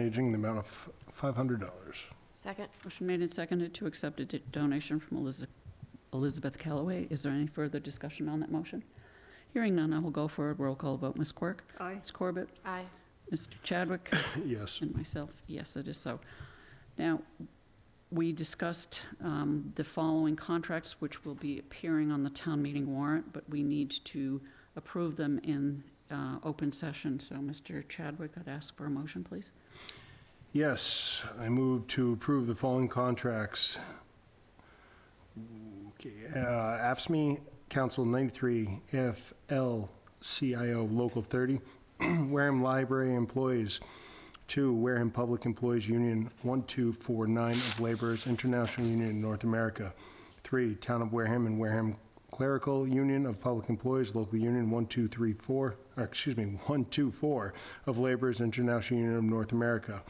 Aging in the amount of five hundred dollars. Second? Motion made and seconded to accept a do- donation from Eliz- Elizabeth Callaway. Is there any further discussion on that motion? Hearing none, I will go for a roll call vote. Ms. Quirk? Aye. Ms. Corbett? Aye. Mr. Chadwick? Yes. And myself, yes, it is so. Now, we discussed um, the following contracts, which will be appearing on the town meeting warrant, but we need to approve them in uh, open session. So, Mr. Chadwick, I'd ask for a motion, please. Yes, I move to approve the following contracts. Okay, uh, AFSMI Council 93, FLCIO Local 30, Wareham Library Employees, two Wareham Public Employees Union 1249 of Laborers International Union of North America, three Town of Wareham and Wareham Clerical Union of Public Employees Local Union 1234, or uh, excuse me, 124 of Laborers International Union of North America,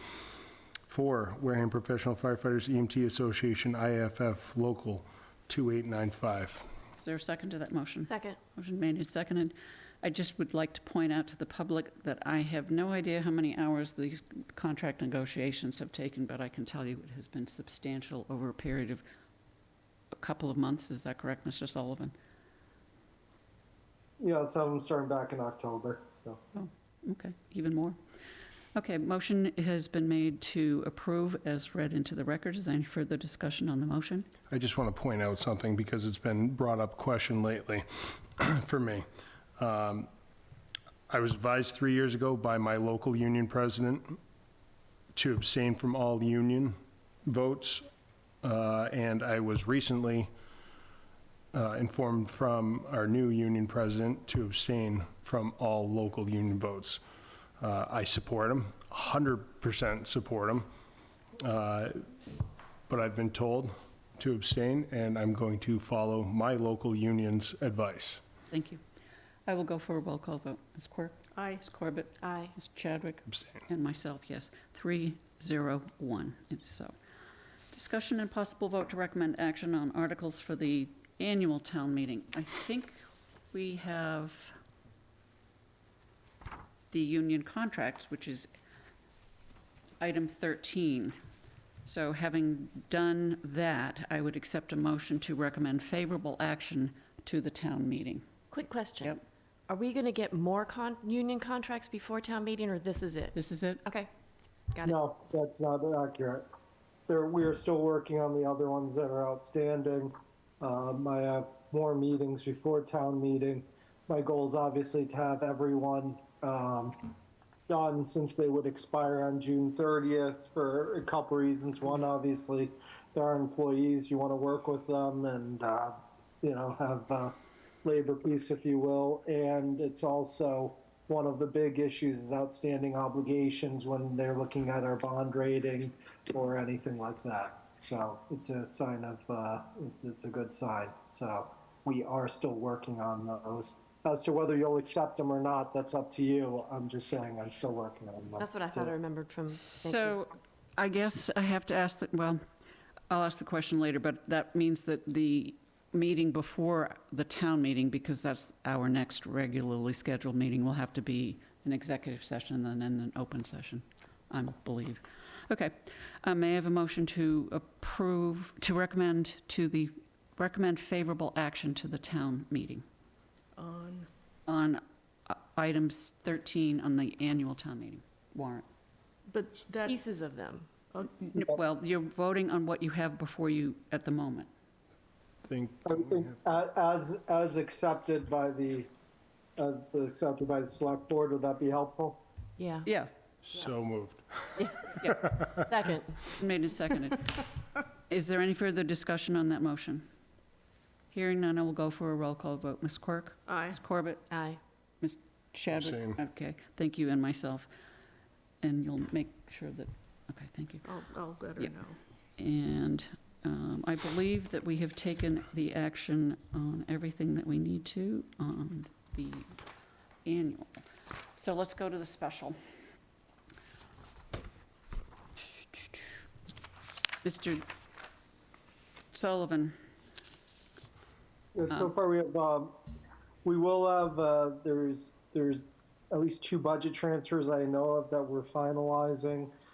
Four, Wareham Professional Firefighters EMT Association, IFF Local 2895. Is there a second to that motion? Second? Motion made and seconded. I just would like to point out to the public that I have no idea how many hours these contract negotiations have taken, but I can tell you it has been substantial over a period of a couple of months. Is that correct, Mr. Sullivan? Yeah, some of them starting back in October, so. Okay, even more. Okay, motion has been made to approve as read into the record. Is there any further discussion on the motion? I just want to point out something because it's been brought up question lately for me. Um, I was advised three years ago by my local union president to abstain from all union votes, uh, and I was recently uh, informed from our new union president to abstain from all local union votes. Uh, I support him, 100% support him, uh, but I've been told to abstain, and I'm going to follow my local union's advice. Thank you. I will go for a roll call vote. Ms. Quirk? Aye. Ms. Corbett? Aye. Ms. Chadwick? Abstain. And myself, yes. Three, zero, one, It is so. Discussion and possible vote to recommend action on articles for the annual town meeting. I think we have the union contracts, which is item 13. So having done that, I would accept a motion to recommend favorable action to the town meeting. Quick question. Yep. Are we going to get more con, union contracts before town meeting, or this is it? This is it? Okay. Got it. No, that's not accurate. There, we are still working on the other ones that are outstanding. Um, I have more meetings before town meeting. My goal is obviously to have everyone um, done since they would expire on June 30th for a couple reasons. One, obviously, there are employees you want to work with them and uh, you know have uh, labor peace, if you will, and it's also one of the big issues is outstanding obligations when they're looking at our bond rating or anything like that. So it's a sign of uh, it's, it's a good sign. So we are still working on those. As to whether you'll accept them or not, that's up to you. I'm just saying I'm still working on them. That's what I thought I So- remembered from, thank you. So I guess I have to ask that, well, I'll ask the question later, but that means that the meeting before the town meeting, because that's our next regularly scheduled meeting, will have to be an executive session and then an open session, I believe. Okay. Uh, May I have a motion to approve, to recommend to the, recommend favorable action to the town meeting On, on uh, items 13 on the annual town meeting warrant? but that, pieces of them. N- Well, you're voting on what you have before you at the moment. Think, I think a- Uh, As, as accepted by the, as accepted by the select board, would that be helpful? Yeah. Yeah, so moved. Second? made and seconded. Is there any further discussion on that motion? Hearing none, I will go for a roll call vote. Ms. Quirk? aye. Ms. Corbett? Aye. Chadwick? Abstain. Okay, thank you, and myself. And you'll make sure that, okay, thank you. I'll, I'll let her Yeah. know. And um, I believe that we have taken the action on everything that we need to on the annual. So let's go to the special. Mr. Sullivan, Uh-huh. And so Um, far, we have, um, we will have, uh, there's, there's at least two budget transfers I know of that we're finalizing.